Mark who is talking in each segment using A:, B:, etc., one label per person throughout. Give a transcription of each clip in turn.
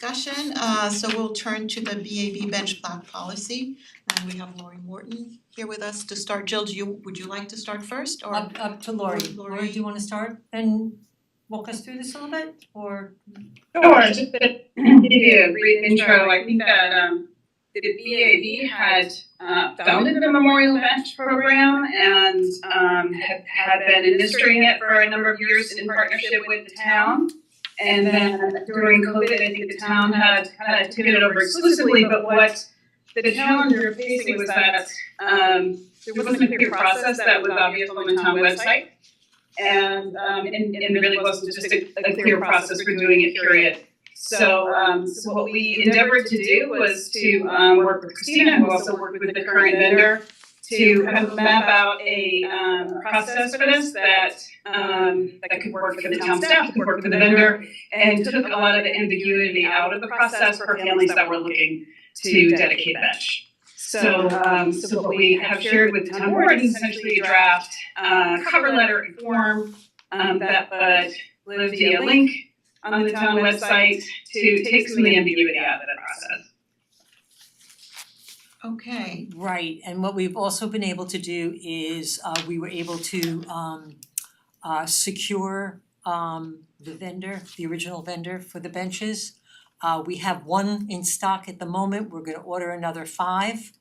A: discussion, uh so we'll turn to the B A B bench block policy. And we have Lori Morton here with us to start. Jill, do you, would you like to start first or?
B: Up up to Lori. Lori, do you wanna start and walk us through this a little bit or?
C: Sure, just to give you a brief intro, I think that um the BAV had uh founded the Memorial Bench Program and um had had been administering it for a number of years in partnership with the town. And then during COVID, I think the town had kind of taken it over exclusively, but what the challenge we were facing was that um there wasn't a clear process that was obvious on the town website. And um and and really wasn't just a a clear process for doing it, period. So um so what we endeavored to do was to um work with Christina, who also worked with the current vendor, to kind of map out a um process for this that um that could work for the town staff, could work for the vendor, and took a lot of the ambiguity out of the process for families that were looking to dedicate a bench. So um so what we have shared with the town board is essentially a draft uh cover letter and form um that but live via link on the town website to take some of the ambiguity out of the process.
A: Okay,
B: Right, and what we've also been able to do is uh we were able to um uh secure um the vendor, the original vendor for the benches. Uh we have one in stock at the moment, we're gonna order another five.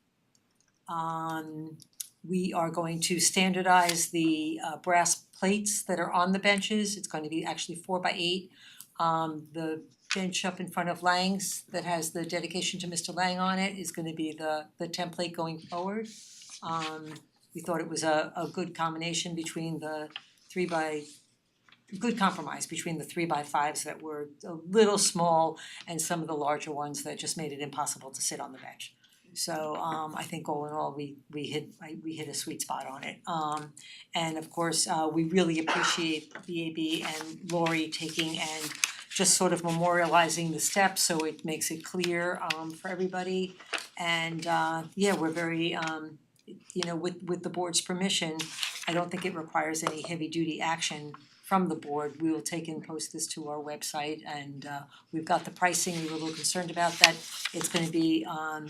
B: Um we are going to standardize the uh brass plates that are on the benches, it's gonna be actually four by eight. Um the bench up in front of Lang's that has the dedication to Mister Lang on it is gonna be the the template going forward. Um we thought it was a a good combination between the three by good compromise between the three by fives that were a little small and some of the larger ones that just made it impossible to sit on the bench. So um I think all in all, we we hit I we hit a sweet spot on it. Um and of course, uh we really appreciate VAB and Lori taking and just sort of memorializing the steps, so it makes it clear um for everybody. And uh yeah, we're very um you know, with with the board's permission, I don't think it requires any heavy duty action from the board. We will take and post this to our website and uh we've got the pricing, we were a little concerned about that. It's gonna be um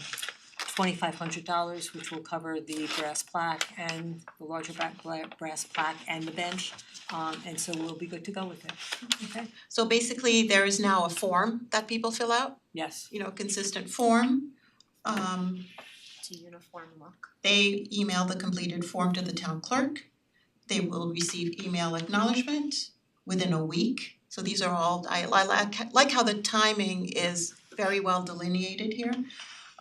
B: twenty five hundred dollars, which will cover the brass plaque and the larger bra- bla- brass plaque and the bench. Um and so we'll be good to go with it, okay?
A: so basically there is now a form that people fill out,
B: Yes.
A: you know, consistent form. Um
D: It's a uniform look.
A: they email the completed form to the town clerk. They will receive email acknowledgement within a week. So these are all, I I like like how the timing is very well delineated here.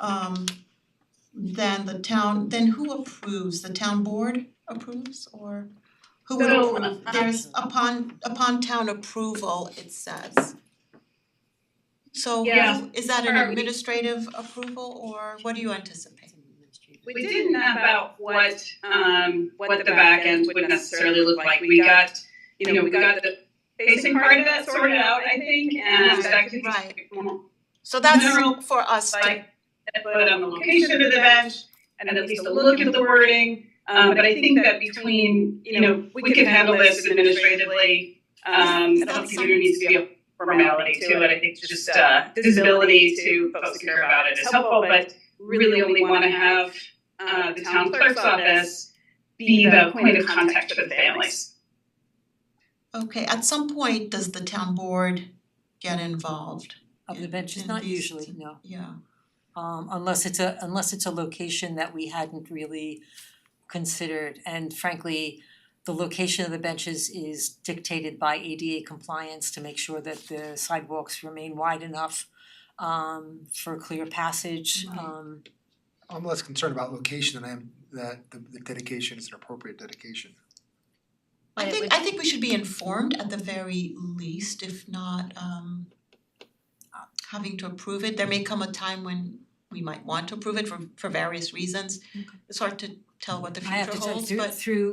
A: Um then the town, then who approves? The town board approves or who would
C: So,
A: approve?
C: uh,
A: There's upon upon town approval, it says. So
C: Yeah.
A: who- is that an
C: Are we-
A: administrative approval or what do you anticipate?
C: We didn't map out what um what the back end would necessarily look like. We got, you know, we got the basic part of that sorted out, I think, and that could
A: Right,
C: be more
A: So that's
C: General,
A: for us,
C: like
A: like,
C: put on the location of the bench and at least a look at the wording. Um but I think that between, you know, we can handle this administratively. Um I don't think there needs to be a formality to it. I think just uh visibility to folks who care about it is helpful, but really only want to have uh, the town clerk's office be the point of contact for the families.
A: okay, at some point, does the town board get involved?
B: Of the benches,
A: And
B: not
A: these-
B: usually, no.
A: Yeah,
B: Um unless it's a unless it's a location that we hadn't really considered and frankly the location of the benches is dictated by ADA compliance to make sure that the sidewalks remain wide enough um for clear passage
A: Right.
B: um
E: I'm less concerned about location than I am that the the dedication is an appropriate dedication.
A: I
D: But it
A: think
D: would-
A: I think we should be informed at the very least, if not um having to approve it, there may come a time when we might want to approve it for for various reasons.
B: Okay.
A: It's hard to tell what the
B: I have
A: future
B: to tell you
A: holds,
B: through
A: but
B: through,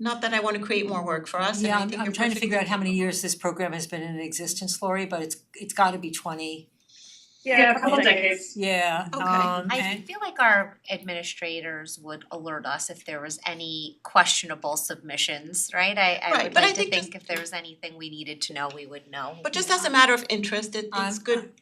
A: not that I wanna create more work for us, and
B: yeah,
A: I
B: I'm
A: think
B: I'm
A: you're
B: trying to figure out how many
A: perfectly-
B: years this program has been in existence, Lori, but it's it's gotta be twenty.
C: Yeah, a couple decades.
B: Yeah,
A: Okay.
B: um
D: I
B: and-
D: feel like our administrators would alert us if there was any questionable submissions, right? I I
A: Right,
D: would
A: but I
D: like to
A: think
D: think if there was anything we needed to know, we would know.
A: But just as a matter of interest, it it's
B: I'm-
A: good